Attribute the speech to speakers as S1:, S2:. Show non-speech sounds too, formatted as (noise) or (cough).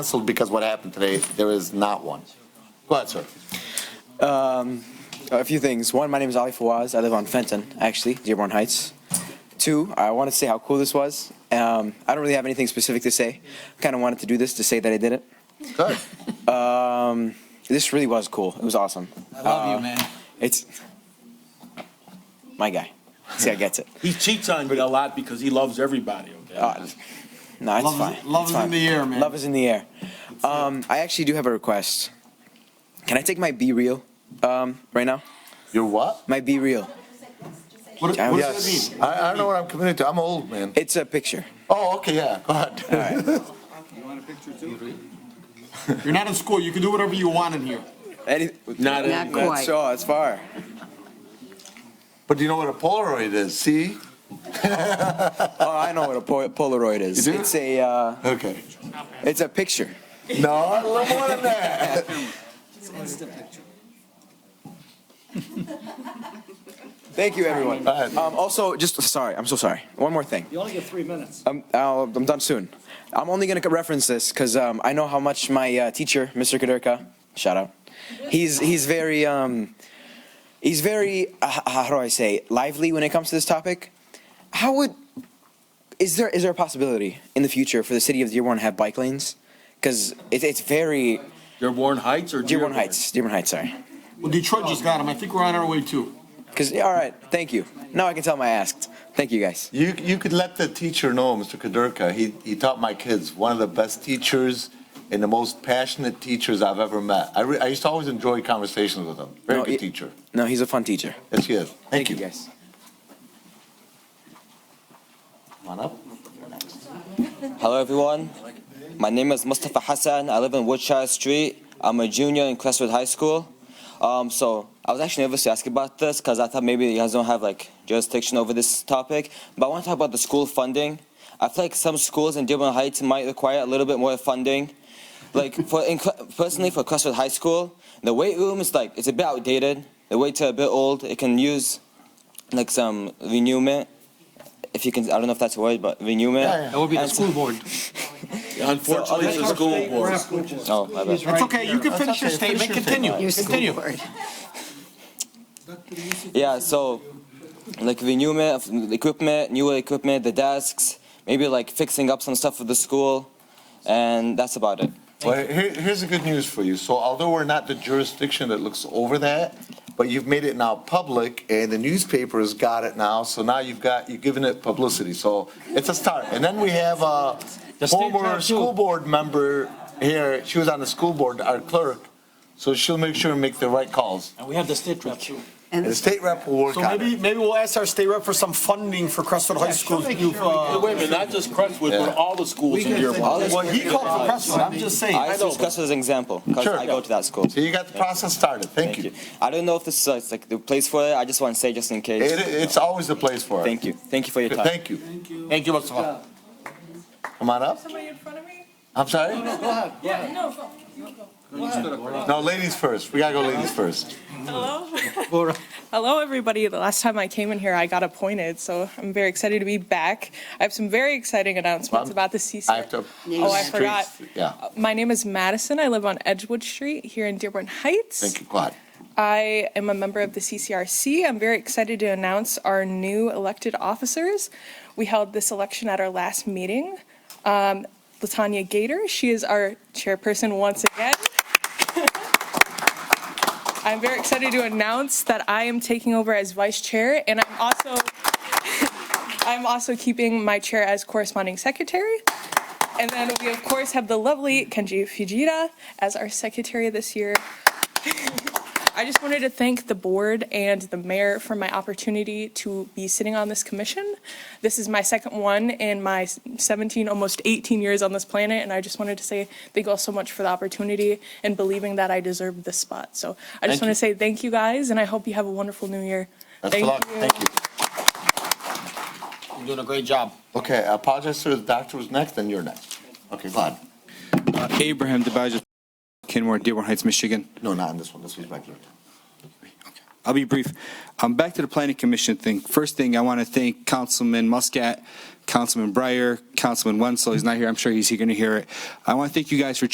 S1: canceled because what happened today, there is not one. Go ahead, sir.
S2: Um, a few things. One, my name is Ali Fawaz. I live on Fenton, actually, Dearborn Heights. Two, I want to say how cool this was. Um, I don't really have anything specific to say. I kind of wanted to do this to say that I did it.
S1: Good.
S2: Um, this really was cool. It was awesome.
S3: I love you, man.
S2: It's my guy. See, I
S3: (laughs)
S2: gets it.
S3: He cheats on you a lot because he loves everybody, okay?
S2: Uh, no, it's
S3: Love is-
S2: fine.
S3: love
S2: It's
S3: is in
S2: fine.
S3: the air, man.
S2: Love is in the air. Um, I actually do have a request. Can I take my B reel um, right now?
S1: You're what?
S2: My B reel.
S3: What, what
S2: I was-
S3: does that mean?
S1: I, I don't know what I'm committed to. I'm old, man.
S2: It's a picture.
S1: Oh, okay, yeah, go ahead.
S3: You're not in school, you can do whatever you want in here.
S2: Any-
S3: Not
S4: Not anymore. quite.
S2: So it's far.
S1: (laughs) But you know what a Polaroid is, see?
S2: Oh, I know what a po- Polaroid is.
S1: You do?
S2: It's a uh,
S1: Okay.
S2: it's a picture.
S1: No, I love more than that.
S2: Thank you, everyone.
S1: Go ahead.
S2: Um, also, just sorry, I'm so sorry. One more thing.
S5: You only get three minutes.
S2: I'm, I'll, I'm done soon. I'm only gonna reference this because um, I know how much my uh, teacher, Mr. Kaderka, shout out. He's he's very um, he's very uh, h- how do I say lively when it comes to this topic. How would is there is there a possibility in the future for the city of Dearborn to have bike lanes? Because it, it's very
S3: Dearborn Heights or
S2: Dearborn Heights, Dearborn Heights, sorry.
S3: Well, Detroit just got him, I think we're on our way too.
S2: Because, all right, thank you. Now I can tell them I asked. Thank you, guys.
S1: You, you could let the teacher know, Mr. Kaderka. He, he taught my kids, one of the best teachers and the most passionate teachers I've ever met. I, re, I used to always enjoy conversations with him. Very
S2: No,
S1: good
S2: it-
S1: teacher.
S2: No, he's a fun teacher.
S1: Yes, he is.
S2: Thank you, guys.
S1: Come on up.
S6: Hello everyone. My name is Mustafa Hassan. I live in Woodshire Street. I'm a junior in Crestwood High School. Um, so I was actually nervous to ask about this because I thought maybe you guys don't have like jurisdiction over this topic. But I want to talk about the school funding. I feel like some schools in Dearborn Heights might require a little bit more funding. Like for in, personally for Crestwood High School, the weight room is like it's a bit outdated. The weights are a bit old. It can use like some renewment. If you can, I don't know if that's a word, but renewment.
S1: Yeah, yeah.
S6: That would be the school board.
S3: Unfortunately, it's a school board.
S6: Oh, my bad.
S3: That's okay, you can finish your
S1: okay, finish your statement.
S3: statement, continue,
S4: Your school
S3: continue.
S4: board.
S6: Yeah, so like renewment of the equipment, newer equipment, the desks, maybe like fixing up some stuff for the school, and that's about it.
S1: Well, here, here's the good news for you. So although we're not the jurisdiction that looks over that, but you've made it now public and the newspaper has got it now. So now you've got, you've given it publicity. So it's a start. And then we have a former school board member here. She was on the school board, our clerk. So she'll make sure and make the right calls.
S5: And we have the state rep too.
S1: And the state rep will work
S7: So
S1: on
S7: maybe,
S1: it.
S7: maybe we'll ask our state rep for some funding for Crestwood High School.
S3: Wait a minute, not just Crestwood,
S1: Yeah.
S3: but all the schools in Dearborn.
S6: All this-
S7: Well, he called for Crestwood, I'm just saying.
S6: I just discuss as an example because
S1: Sure.
S6: I go to that school.
S1: So you got the process started. Thank
S6: Thank you.
S1: you.
S6: I don't know if this is uh, like the place for it. I just want to say just in case.
S1: It, it's always the place for it.
S6: Thank you. Thank you for your time.
S1: Thank you.
S3: Thank you, Mustafa.
S1: Come on up.
S8: Somebody in front of me?
S1: I'm sorry?
S8: Yeah, no, go- you go.
S1: No, ladies first. We gotta go ladies first. (laughs)
S8: Hello? Hello, everybody. The last time I came in here, I got appointed, so I'm very excited to be back. I have some very exciting announcements
S1: Mom,
S8: about the
S1: I have
S8: CC.
S1: to.
S8: Oh, I forgot.
S1: Yeah.
S8: My name is Madison. I live on Edgewood Street here in Dearborn Heights.
S1: Thank you, Quad.
S8: I am a member of the CCRC. I'm very excited to announce our new elected officers. We held this election at our last meeting. Um, Latanya Gator, she is our chairperson once again. (laughs) I'm very excited to announce that I am taking over as vice chair, and I'm also I'm also keeping my chair as corresponding secretary. And then we of course have the lovely Kenji Fujita as our secretary this year. (laughs) I just wanted to thank the board and the mayor for my opportunity to be sitting on this commission. This is my second one in my 17, almost 18 years on this planet, and I just wanted to say thank you all so much for the opportunity and believing that I deserved this spot. So I
S3: Thank
S8: just want
S3: you.
S8: to say thank you guys, and I hope you have a wonderful new year.
S1: Best of luck. Thank you.
S3: You're doing a great job.
S1: Okay, I apologize, sir. The doctor was next, then you're next. Okay, Quad.
S9: Abraham DeBajos, Kenmore, Dearborn Heights, Michigan.
S1: No, not on this one. This was regular.
S9: I'll be brief. Um, back to the planning commission thing. First thing, I want to thank Councilman Muscat, Councilman Breyer, Councilman Wenzel. He's not here. I'm sure he's going to hear it. I want to thank you guys for